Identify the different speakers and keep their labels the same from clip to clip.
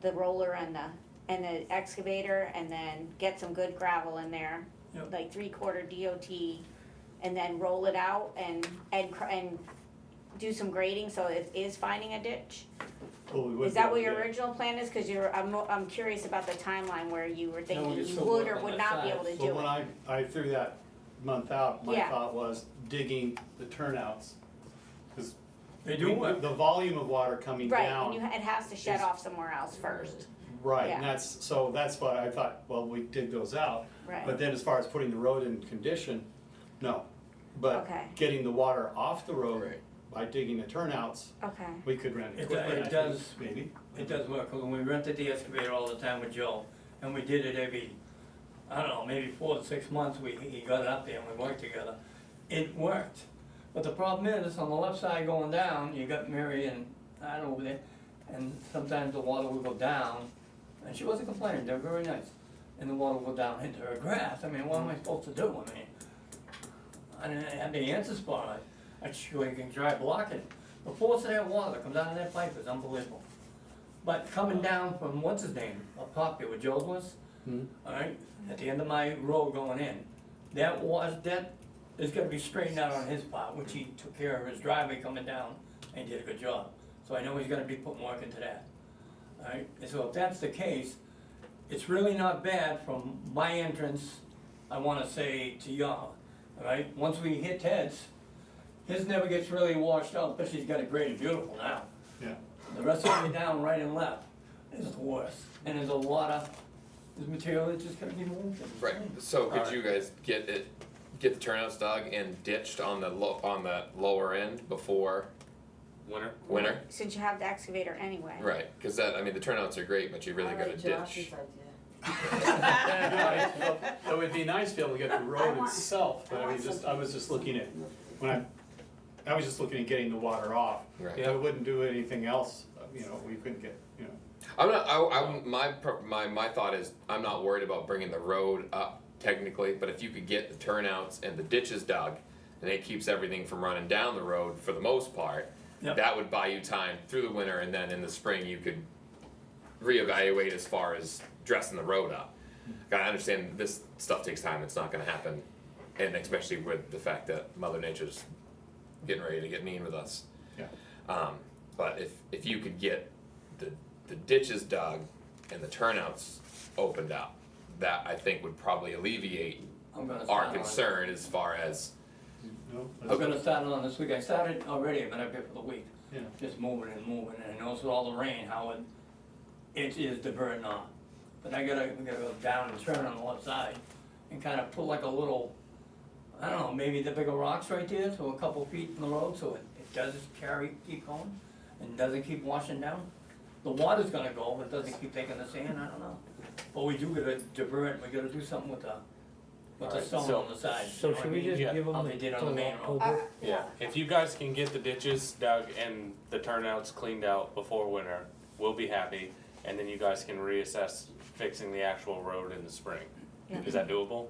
Speaker 1: the roller and the, and the excavator and then get some good gravel in there.
Speaker 2: Yep.
Speaker 1: Like three quarter DOT and then roll it out and, and, cr- and do some grading, so it is finding a ditch?
Speaker 2: Well, we would
Speaker 1: Is that
Speaker 2: do,
Speaker 1: what your
Speaker 2: yeah.
Speaker 1: original plan is? Cause you're, I'm, I'm curious about the timeline where you were thinking
Speaker 3: it's
Speaker 1: you
Speaker 3: still
Speaker 1: would or
Speaker 3: work on
Speaker 1: would
Speaker 3: that
Speaker 1: not be
Speaker 3: side.
Speaker 1: able to do it.
Speaker 2: But when I, I threw that month out, my
Speaker 1: Yeah.
Speaker 2: thought was digging the turnouts, because.
Speaker 3: They do what?
Speaker 2: The volume of water coming
Speaker 1: Right, and
Speaker 2: down.
Speaker 1: you, it has to shut
Speaker 2: is-
Speaker 1: off somewhere else first,
Speaker 2: Right,
Speaker 1: Yeah.
Speaker 2: and that's, so that's what I thought, well, we dig those out.
Speaker 1: Right.
Speaker 2: But then as far as putting the road in condition, no.
Speaker 1: Okay.
Speaker 2: But getting the water off the road
Speaker 3: Right.
Speaker 2: by digging the turnouts,
Speaker 1: okay.
Speaker 2: we could rent
Speaker 3: It do-
Speaker 2: equipment.
Speaker 3: it
Speaker 2: I think,
Speaker 3: does-
Speaker 2: Maybe.
Speaker 3: It does work, 'cause when we rented the excavator all the time with Joe, and we did it every, I don't know, maybe four to six months, we, he got it up there and we worked together. It worked, but the problem is, on the left side going down, you got Mary and I over there, and sometimes the water would go down, and she wasn't complaining, they're very nice. And the water would go down into her grass, I mean, what am I supposed to do, I mean? I didn't have the answers for it, I sure you can try blocking, the force of that water that comes out of that pipe is unbelievable. But coming down from, what's his name, a popular where Joe's was,
Speaker 2: Hmm.
Speaker 3: alright, at the end of my road going in, that was, that is gonna be straightened out on his part, which he took care of his driveway coming down and did a good job. So I know he's gonna be putting work into that, alright, and so if that's the case, it's really not bad from my entrance, I wanna say to y'all, alright? Once we hit Ted's, his never gets really washed out, but she's got it graded beautiful now.
Speaker 2: Yeah.
Speaker 3: The rest of it down, right and left, is the worst, and there's a lot of, there's material that just gotta be moved. and-
Speaker 4: Right, so could you guys get it, get the turnouts dug and ditched on the lo- on the lower end before
Speaker 5: Winner?
Speaker 4: winter?
Speaker 1: Since you have the excavator anyway.
Speaker 4: Right, cause that, I mean, the turnouts are great, but you really gotta ditch.
Speaker 2: Yeah, It would be nice to be able to get the
Speaker 6: I
Speaker 2: road
Speaker 6: want-
Speaker 2: itself, but
Speaker 6: I
Speaker 2: I
Speaker 6: want
Speaker 2: was just, I
Speaker 6: something.
Speaker 2: was just looking at, when I, I was just looking at getting the water off.
Speaker 4: Right.
Speaker 2: Yeah, I wouldn't do anything else, uh, you know, we couldn't get, you know.
Speaker 4: I'm not, I, I, my, pro- my, my thought is, I'm not worried about bringing the road up technically, but if you could get the turnouts and the ditches dug, and it keeps everything from running down the road for the most part,
Speaker 3: Yep.
Speaker 4: that would buy you time through the winter, and then in the spring, you could reevaluate as far as dressing the road up. Like, I understand this stuff takes time, it's not gonna happen, and especially with the fact that Mother Nature's getting ready to get mean with us.
Speaker 2: Yeah.
Speaker 4: Um, but if, if you could get the, the ditches dug and the turnouts opened up, that I think would probably alleviate
Speaker 3: I'm gonna start
Speaker 4: our
Speaker 3: on-
Speaker 4: concern as far as,
Speaker 2: No,
Speaker 3: I'm gonna start on this week, I started already, but I've been for the week,
Speaker 2: Yeah.
Speaker 3: just moving and moving, and I know with all the rain, how it, it is diverting on. But I gotta, we gotta go down and turn on the left side, and kinda put like a little, I don't know, maybe the bigger rocks right there, so a couple feet in the road, so it, it does carry, keep going, and doesn't keep washing down. The water's gonna go, but it doesn't keep taking the sand, I don't know. But we do gotta divert, we gotta do something with the, with the
Speaker 5: Alright,
Speaker 3: stone
Speaker 5: so-
Speaker 3: on the side. you
Speaker 7: So
Speaker 3: know what I
Speaker 7: should we
Speaker 3: mean?
Speaker 7: just
Speaker 5: Yeah.
Speaker 7: give them
Speaker 3: How they did on the
Speaker 7: till
Speaker 3: main road.
Speaker 7: October?
Speaker 5: Yeah, if you guys can get the ditches dug and the turnouts cleaned out before winter, we'll be happy. And then you guys can reassess fixing the actual road in the spring. Is that doable?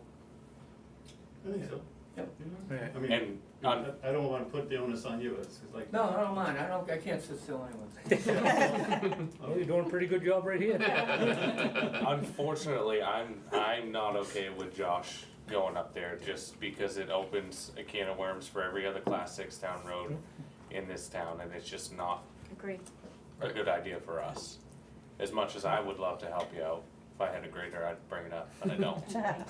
Speaker 2: I think so. I mean,
Speaker 5: And
Speaker 2: I
Speaker 5: on,
Speaker 2: I don't wanna put the onus on you, it's it's like. Oh,
Speaker 3: No, I don't mind, I don't, I can't sit still anyway.
Speaker 7: Well, Oh, you're doing a pretty good job right here.
Speaker 5: unfortunately, I'm, I'm not okay with Josh going up there just because it opens a can of worms for every other class six town road in this town and it's just not
Speaker 1: Agreed.
Speaker 5: a good idea for us. As much as I would love to help you out, if I had a grader, I'd bring it up, but I don't.
Speaker 1: Yeah.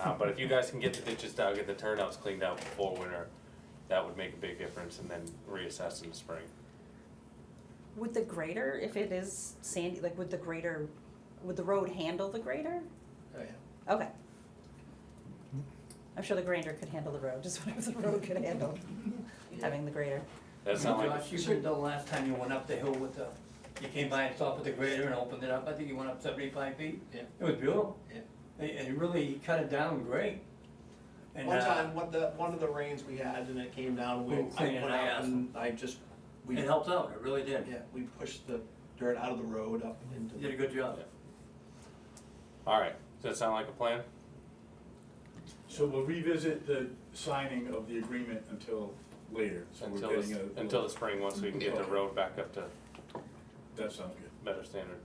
Speaker 5: Uh, but if you guys can get the ditches dug and the turnouts cleaned out before winter, that would make a big difference and then reassess in the spring.
Speaker 8: Would the grader, if it is sandy, like would the grader, would the road handle the grader? Okay. I'm sure the grader could handle the road, just whatever the road could handle, having the grader.
Speaker 5: That sound like,
Speaker 3: Josh, you could, the last time you went up the hill with the, you came by and stopped with the grader and opened it up, I think you went up seventy-five feet.
Speaker 9: Yeah.
Speaker 3: It was beautiful.
Speaker 9: Yeah.
Speaker 3: And, and really, he cut it down great. And,
Speaker 9: One
Speaker 3: uh,
Speaker 9: time, one, the, one of the rains we had and it came down, we,
Speaker 3: We
Speaker 9: I
Speaker 3: were cleaning
Speaker 9: went
Speaker 3: it
Speaker 9: out
Speaker 3: out.
Speaker 9: and I just, we,
Speaker 3: It helped out, it really did.
Speaker 9: yeah, we pushed the dirt out of the road up into
Speaker 3: You
Speaker 9: the.
Speaker 3: did a good job.
Speaker 5: alright, does that sound like a plan?
Speaker 10: So we'll revisit the signing of the agreement until later, so we're
Speaker 5: Until
Speaker 10: getting
Speaker 5: this,
Speaker 10: a.
Speaker 5: until the spring, once we can get the
Speaker 10: Okay.
Speaker 5: road back up to
Speaker 10: That sounds good.
Speaker 5: better standard.